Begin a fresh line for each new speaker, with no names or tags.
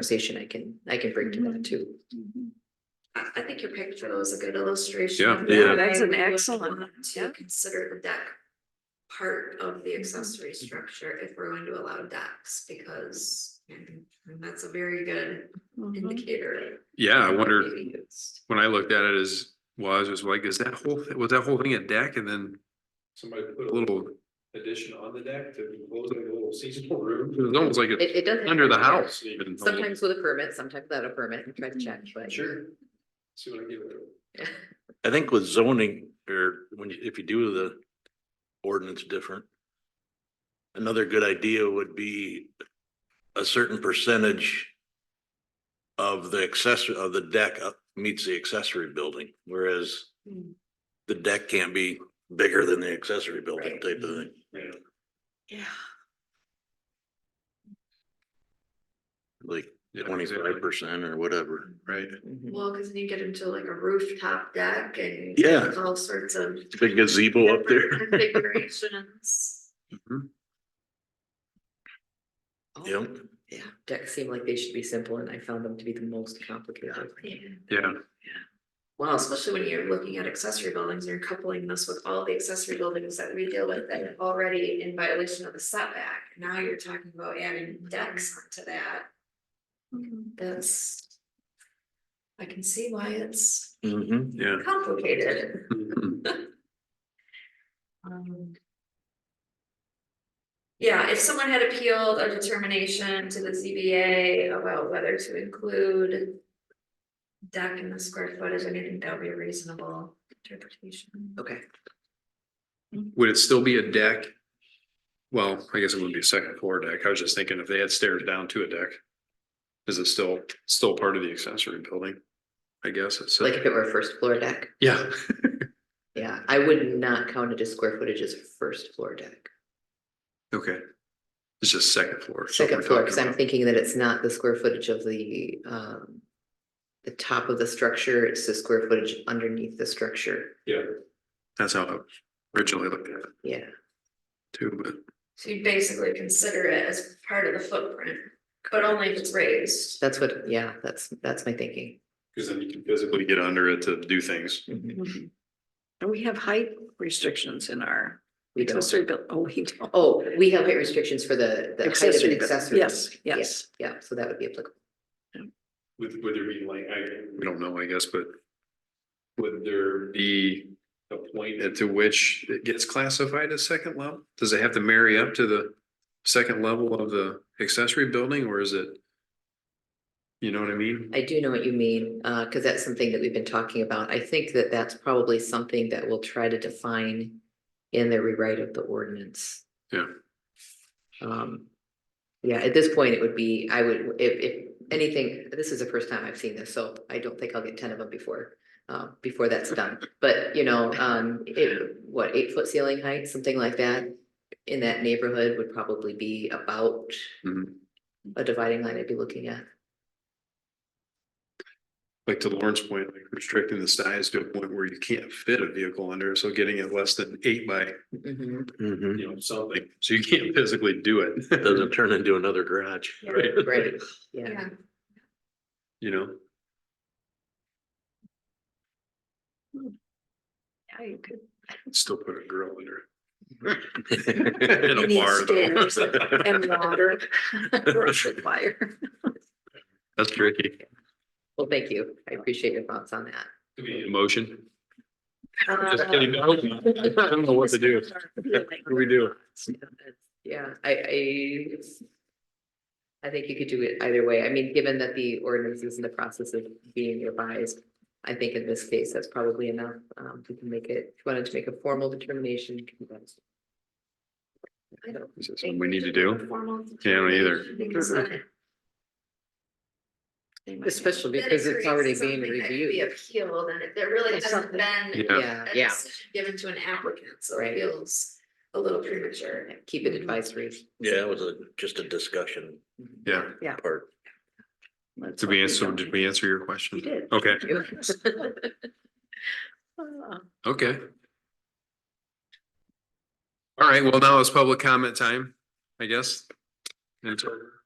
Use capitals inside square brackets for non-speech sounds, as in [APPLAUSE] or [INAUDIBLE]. conversation I can, I can bring to
Mm-hmm.
that too.
I, I think your picture was a good illustration.
Yeah.
of
Yeah,
that.
that's
I
an
would
excellent
want
one,
To
yeah. Mm-hmm.
consider the deck part of the accessory structure if we're going to allow decks, because mm, that's a very good
Mm-hmm.
Mhm.
indicator.
Yeah, I wonder,
Maybe used.
when I looked at it as was, was like, is that whole, thi- was that whole thing a deck and then
Somebody put
a
a little
little,
addition on the deck to enclose like a little seasonal room.
it was almost like
It,
it's
it doesn't.
under the house even.
Sometimes with a permit, sometimes without a permit, and try to check,
Mm-hmm.
but.
Sure. See what I give it.
I think with zoning or when you, if you do the ordinance different. Another good idea would be a certain percentage. Of the accessory, of the deck up- meets the accessory building, whereas
Hmm.
the deck can't be bigger than the accessory building
Right.
type of thing.
Yeah.
Like
Yeah,
twenty-five percent or whatever.
Right.
Mhm.
Well, cause then you get into like a rooftop deck and.
Yeah.
there's All sorts of.
Big gazebo up there.
[LAUGHS] different Configurations.
All
Yep.
of them. Yeah, decks seem like they should be simple and I found them to be the most
Oh,
complicated.
Yeah.
Yeah,
Wow, so-
Especially when you're looking at accessory buildings, you're coupling this with all the accessory buildings that we deal with that are already in violation of the setback. Now you're talking about adding decks to that. That's. I can see why it's
Mhm.
yeah.
complicated.
Mhm.
Um, Yeah, if someone had appealed a determination to the ZBA about whether to include. Deck in the square footage, I mean, I think that would be a reasonable interpretation.
okay,
Would it still be a deck? Well, I guess it wouldn't be a second floor deck. I was just thinking if they had stairs down to a deck. Is it still, still part of the accessory building? I guess it's, uh,
like if it were a first floor deck,
yeah,
yeah, I would not count it as square footage as a first floor deck.
okay. It's just second floor. is what
Second
we're
floor,
talking
because I'm
about.
thinking that it's not the square footage of the um. The top of the structure, it's the square footage underneath the structure,
Yeah.
That's how I originally looked at it
yeah,
too, but
So you basically consider it as part of the footprint, but only if it's raised.
that's what, yeah, that's, that's my thinking.
because then you can physically get under it to do things.
Mhm.
Mhm. And we have height restrictions in our
We don't.
accessory build, oh, we don't.
Oh, we have height restrictions for the, the height of
Accessory
an
buil-
accessory.
yes,
Yeah,
yes.
Yeah, so that would be applicable.
Would, would there be like,
We
I,
don't know, I guess, but
would there be
the,
a point
and
that,
to which it gets classified as second level? Does it have to marry up to the second level of the accessory building or is it? You know what I mean?
I do know what you mean, uh, cause that's something that we've been talking about. I think that that's probably something that we'll try to define in the rewrite of the ordinance.
Yeah.
Um, yeah, at this point, it would be, I would, if, if anything, this is the first time I've seen this, so I don't think I'll get ten of them before, uh, before that's done. But, you know, um, it, what, eight foot ceiling height, something like that, in that neighborhood would probably be about
Mhm.
a dividing line I'd be looking at.
Like to Lauren's point, like restricting the size to a point where you can't fit a vehicle under, so getting it less than eight by,
Mhm.
Mhm.
you know, something, [LAUGHS] so you can't physically do it. [LAUGHS]
Doesn't turn into another garage.
Right,
Right, yeah,
Yeah,
you know,
Yeah, you could.
still put a grill under it. In a bar [LAUGHS] though.
And water, [LAUGHS]
[LAUGHS]
brush with fire.
That's tricky.
well, thank you, I appreciate your thoughts on that.
could be
Motion. Just
Uh,
kidding. I hope not. I don't know what to do. What do we do?
Yeah, I, I. I think you could do it either way, I mean, given that the ordinance is in the process of being revised, I think in this case, that's probably enough, um, we can make it, if you wanted to make a formal determination. you can do that. I don't,
Is that something we need to do?
Formal
Yeah, I don't either.
because then it- they might-
Especially
then it
because it's
creates
already being
something that could be
reviewed.
Appealed and it, there really
It's
hasn't
something-
been
Yeah.
yeah,
a
yeah,
decision given to an applicant, so
Right.
it feels a little premature.
keep it advisory. [LAUGHS]
Yeah, it was a, just a discussion
Yeah.
part.
Did we answer, did we answer your question?
You did.
Okay,
Uh,
okay. All right, well, now it's public comment time, I guess. And so